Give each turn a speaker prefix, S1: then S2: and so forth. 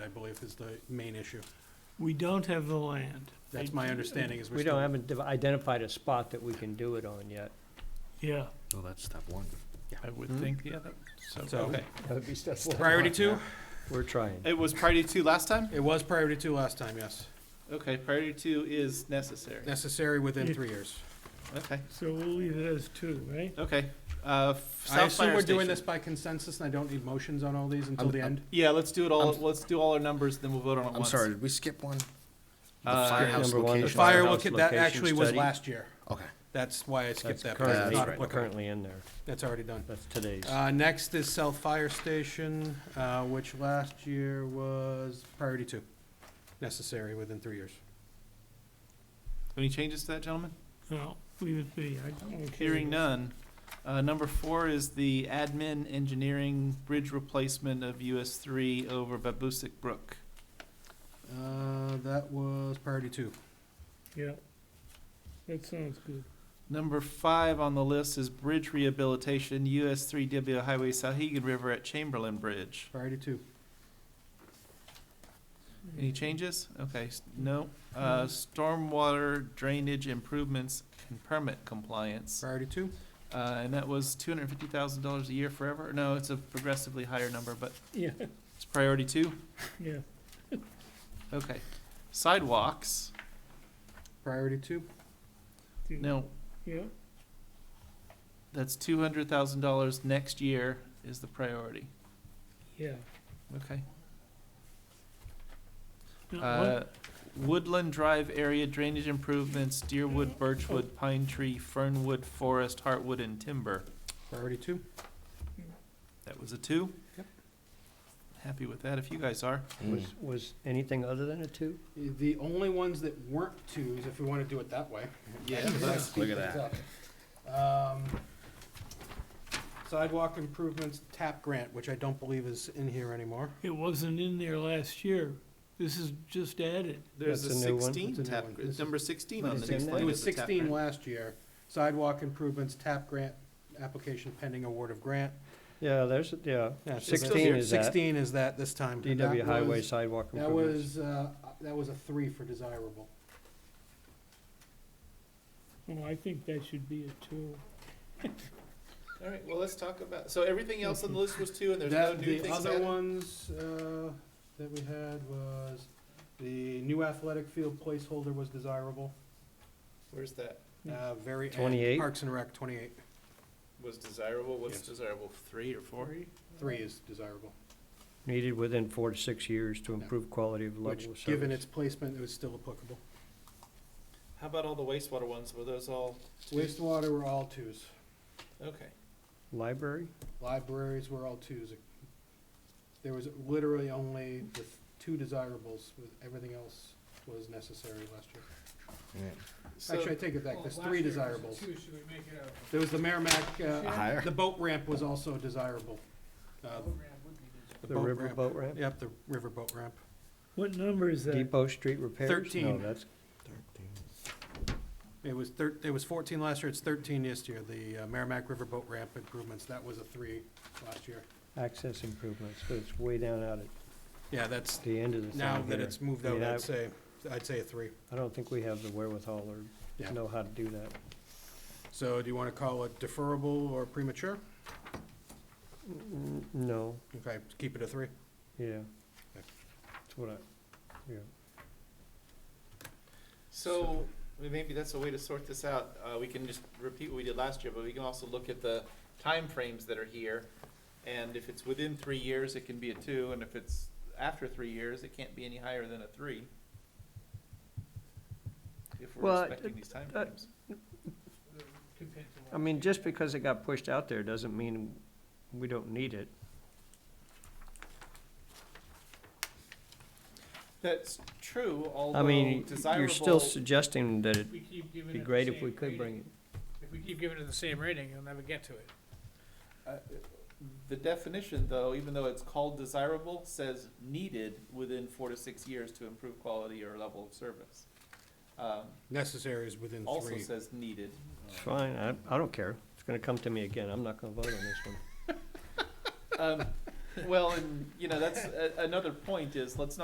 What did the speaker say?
S1: believe, is the main issue.
S2: We don't have the land.
S1: That's my understanding, is we're
S3: We don't
S1: still-
S3: haven't div- identified a spot that we can do it on yet.
S2: Yeah,
S4: Well, that's step one.
S2: I would
S4: Hmm.
S2: think, yeah, that,
S1: So-
S2: so,
S1: Okay.
S3: That would be step one.
S1: Priority two?
S3: We're trying.
S5: It was priority two last time?
S1: It was priority two last time, yes.
S5: Okay, priority two is necessary.
S1: Necessary within three years.
S5: Okay,
S2: so we'll leave it as two, right?
S5: okay. Uh, f-
S1: I
S5: South
S1: assume
S5: Fire
S1: we're doing this
S5: Station.
S1: by consensus, and I don't need motions on all these until the end?
S5: Yeah, let's do it all,
S4: I'm-
S5: let's do all our numbers, then we'll vote on it
S4: I'm
S5: once.
S4: sorry, did we skip one? The
S5: Uh,
S4: firehouse
S3: Number one, the
S4: location.
S1: The fire,
S3: Firehouse
S1: look, that
S3: location
S1: actually was
S3: study.
S1: last year.
S4: Okay.
S1: That's why I
S3: That's
S1: skipped that, because it's not
S3: currently,
S1: applicable.
S3: currently in there.
S1: That's already done.
S3: That's today's.
S1: Uh, next is South Fire Station, uh, which last year was priority two, necessary within three years.
S5: Any changes to that, gentlemen?
S2: No, leave it be. I don't care.
S5: Hearing none. Uh, number four is the admin engineering bridge replacement of US three over Babusick Brook.
S1: Uh, that was priority two.
S2: Yeah, that sounds good.
S5: Number five on the list is bridge rehabilitation, US three W Highway Sahegan River at Chamberlain Bridge.
S1: Priority two.
S5: Any changes? Okay, s- no. Uh, stormwater drainage improvements and permit compliance.
S1: Priority two.
S5: Uh, and that was two hundred and fifty thousand dollars a year forever? No, it's a progressively higher number, but
S2: Yeah,
S5: it's priority two?
S2: yeah.
S5: Okay. Sidewalks,
S1: Priority two.
S2: do-
S5: no,
S2: Yeah,
S5: that's two hundred thousand dollars next year is the priority,
S2: yeah.
S5: okay?
S2: No, what-
S5: Uh, Woodland Drive area drainage improvements, Deerwood, Birchwood, Pine Tree, Fernwood, Forest, Heartwood, and Timber.
S1: Priority two.
S5: That was a two?
S1: Yep.
S5: Happy with that, if you guys are.
S3: Was, was anything other than a two?
S1: The only ones that weren't twos, if we want to do it that way.
S5: Yeah.
S1: Because I speed
S4: Look at
S1: things up. Um, Sidewalk improvements, TAP grant, which I don't believe is in here anymore.
S2: It wasn't in there last year. This is just added.
S5: There's a
S3: That's a new one.
S5: sixteen
S1: That's a new
S5: tap,
S1: one. This
S5: it's
S1: is-
S5: number sixteen on
S3: It's
S5: the
S3: in
S5: next
S3: there.
S5: line.
S1: It was
S5: is the tap
S1: sixteen
S5: grant.
S1: last year. Sidewalk improvements, TAP grant, application pending award of grant.
S3: Yeah, there's, yeah.
S1: Yeah, so that's-
S3: Sixteen is that.
S1: Sixteen is that this time. and that
S3: DW highway
S1: was-
S3: sidewalk
S1: That
S3: improvements.
S1: was, uh, that was a three for desirable.
S2: Well, I think that should be a two.
S5: All right, well, let's talk about, so everything else on the list was two, and there's no
S1: That-
S5: new
S1: The
S5: things
S1: other
S5: added?
S1: ones, uh, that we had was, the new athletic field placeholder was desirable.
S5: Where's that?
S1: Uh, very. end,
S3: 28?
S1: Parks and Rec, twenty-eight.
S5: Was desirable, what's
S1: Yes.
S5: desirable, three or four?
S1: Three is desirable,
S3: Needed within four to six years to improve quality of
S1: which,
S3: level of
S1: given
S3: service.
S1: its placement, it was still applicable.
S5: How about all the wastewater ones, were those all,
S1: Wastewater were all twos.
S5: okay.
S3: Library?
S1: Libraries were all twos. There was literally only the two desirables, with everything else was necessary last year. Actually, I take it back,
S6: Oh,
S1: there's three desirables. There was the Merrimack, uh,
S4: Higher?
S1: the boat ramp was also desirable. Uh,
S4: Um,
S3: The riverboat ramp?
S1: Yep, the river boat ramp.
S2: What number is that?
S3: Depot Street repairs? No,
S1: Thirteen.
S3: that's,
S1: It was thir, it was fourteen last year, it's thirteen this year, the uh, Merrimack River boat ramp improvements, that was a three last year.
S3: access improvements, so it's way down out at
S1: Yeah, that's,
S3: the end of the thing
S1: now that
S3: here.
S1: it's moved
S3: I
S1: out,
S3: mean, I-
S1: I'd say, I'd say a three.
S3: I don't think we have the wherewithal or
S1: Yeah.
S3: know how to do that.
S1: So do you wanna call it deferrable or premature?
S3: N- No,
S1: Okay, keep it a three.
S3: yeah.
S1: Okay.
S3: That's what I, yeah.
S5: So, well, maybe that's a way to sort this out, uh, we can just repeat what we did last year, but we can also look at the timeframes that are here. And if it's within three years, it can be a two, and if it's after three years, it can't be any higher than a three. If
S3: Well,
S5: we're respecting these
S3: uh,
S5: timeframes.
S3: I mean, just because it got pushed out there doesn't mean we don't need it.
S5: That's true,
S3: I
S5: although
S3: mean, you're still
S5: desirable,
S3: suggesting that it'd
S6: We keep giving
S3: be
S6: it the
S3: great if
S6: same
S3: we could
S6: rating.
S3: bring it.
S6: If we keep giving it the same rating, you'll never get to it.
S5: uh, the definition though, even though it's called desirable, says needed within four to six years to improve quality or level of service. Um,
S1: Necessary is within
S5: also
S1: three.
S5: says needed.
S3: It's fine, I, I don't care. It's gonna come to me again, I'm not gonna vote on this one.
S5: Um, well, and, you know, that's, a- another point is, let's not